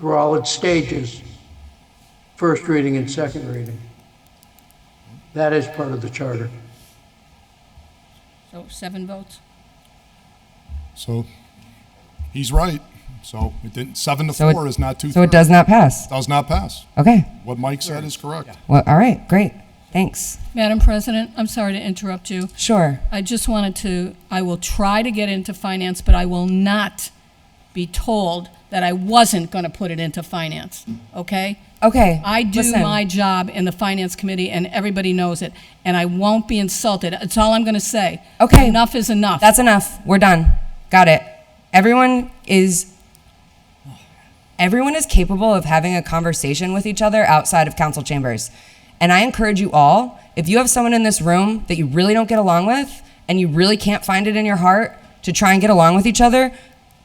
We're all at stages, first reading and second reading. That is part of the charter. So Oh, seven votes? So he's right. So it didn't, seven to So it- four is not two So it does not pass. Does not pass. Okay. What Mike said is correct. Well, all right, great. Thanks. Madam President, I'm sorry to interrupt you. Sure. I just wanted to, I will try to get into finance, but I will not be told that I wasn't going to put it into finance, okay? Okay. I do listen. my job in the Finance Committee, and everybody knows it, and I won't be insulted. That's all I'm going to say. Okay. Enough is enough. That's enough. We're done. Got it. Everyone is everyone is capable of having a conversation with each other outside of council chambers. And I encourage you all, if you have someone in this room that you really don't get along with and you really can't find it in your heart to try and get along with each other,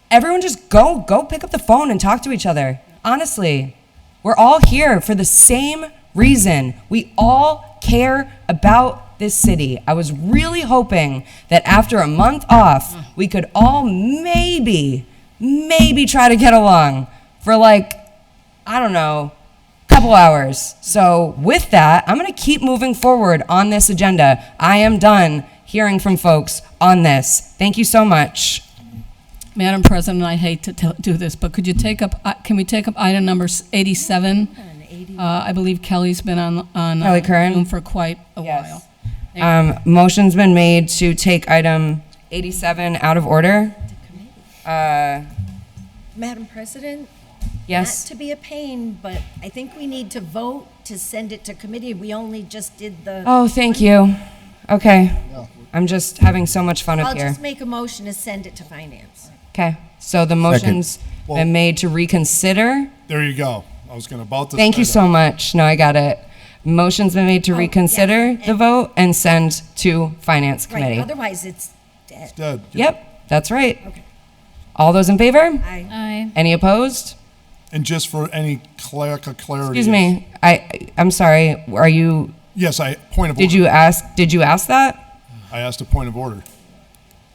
everyone just go go pick up the phone and talk to each other. Honestly, we're all here for the same reason. We all care about this city. I was really hoping that after a month off, we could all maybe, maybe try to get along for like, I don't know, couple hours. So with that, I'm going to keep moving forward on this agenda. I am done hearing from folks on this. Thank you so much. Madam President, I hate to tell- do this, but could you take up, uh, can we take up item number s- 87? Uh, I believe Kelly's been on, on. uh, Kelly Curran? Zoom For quite a Yes. while. Um, motion's been made to take item 87 out of order. Madam President? Yes. Not to be a pain, but I think we need to vote to send it to committee. We only just did the, Oh, thank you. Okay. I'm just having so much fun up I'll here. just make a motion to send it to finance. Okay. So the motion's been made to reconsider. There you go. I was gonna about to. Thank you say that. so much. No, I got it. Motion's been Oh, made to reconsider the vote and send to Finance Right, Committee. otherwise it's dead. Dead. Yep, that's right. Okay. All those in favor? I- Any opposed? And just for any cleric clarity. Excuse me. I, I'm sorry. Are you, Yes, I, point of did order. you ask, did you ask that? I asked a point of order.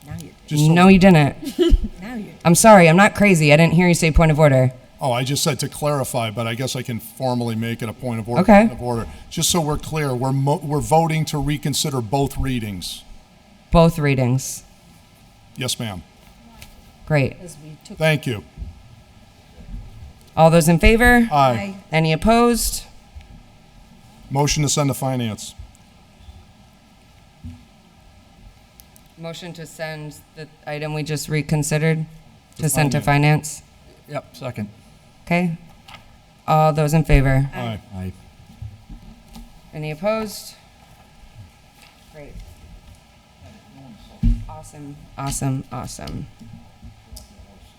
Now you're, Just so- No, you didn't. now you're, I'm sorry. I'm not crazy. I didn't hear you say point of order. Oh, I just said to clarify, but I guess I can formally make it a point of order. Okay. Point Of order. Just so we're clear, we're, mo- we're voting to reconsider both readings. Both readings. Yes, ma'am. Great. because we took, Thank you. All those in favor? Aye. I, Any opposed? Motion to send to finance. Motion to send the item we just reconsidered to send to finance. finance. Yep, second. Okay. All those in favor? Aye. Aye. Any opposed? Great. Awesome, awesome, awesome.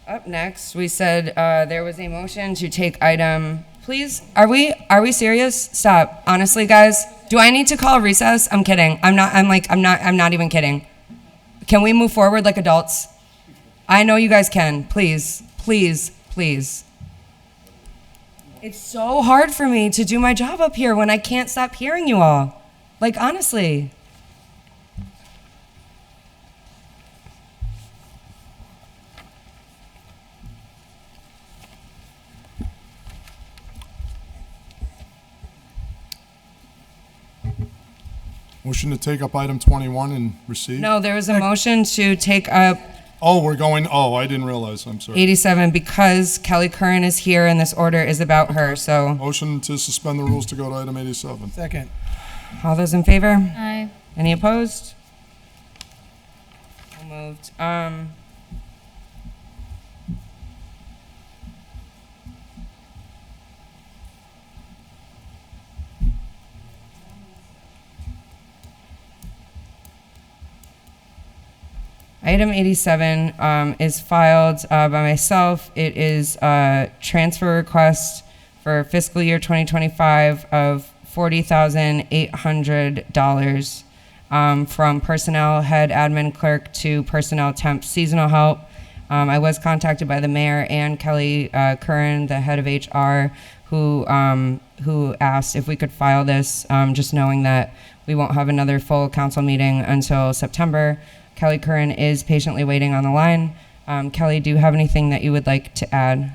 Up next, we said uh, there was a motion to take item. Please, are we are we serious? Stop. Honestly, guys, do I need to call recess? I'm kidding. I'm not. I'm like. I'm not. I'm not even kidding. Can we move forward like adults? I know you guys can. Please, please, please. It's so hard for me to do my job up here when I can't stop hearing you all. Like, honestly. Motion to take up item 21 and receive? No, there was a motion to take up Oh, we're going, oh, I didn't realize, I'm sorry. 87 because Kelly Curran is here and this order is about her. So, Motion to suspend the rules to go to item 87. Second. all those in favor? Aye. Any opposed? So moved. Um, Item 87 um, is filed uh, by myself. It is a transfer request for fiscal year 2025 of $40,800 um, from personnel head admin clerk to personnel temp seasonal help. Um, I was contacted by the mayor and Kelly uh, Curran, the head of HR, who um, who asked if we could file this, um, just knowing that we won't have another full council meeting until September. Kelly Curran is patiently waiting on the line. Um, Kelly, do you have anything that you would like to add?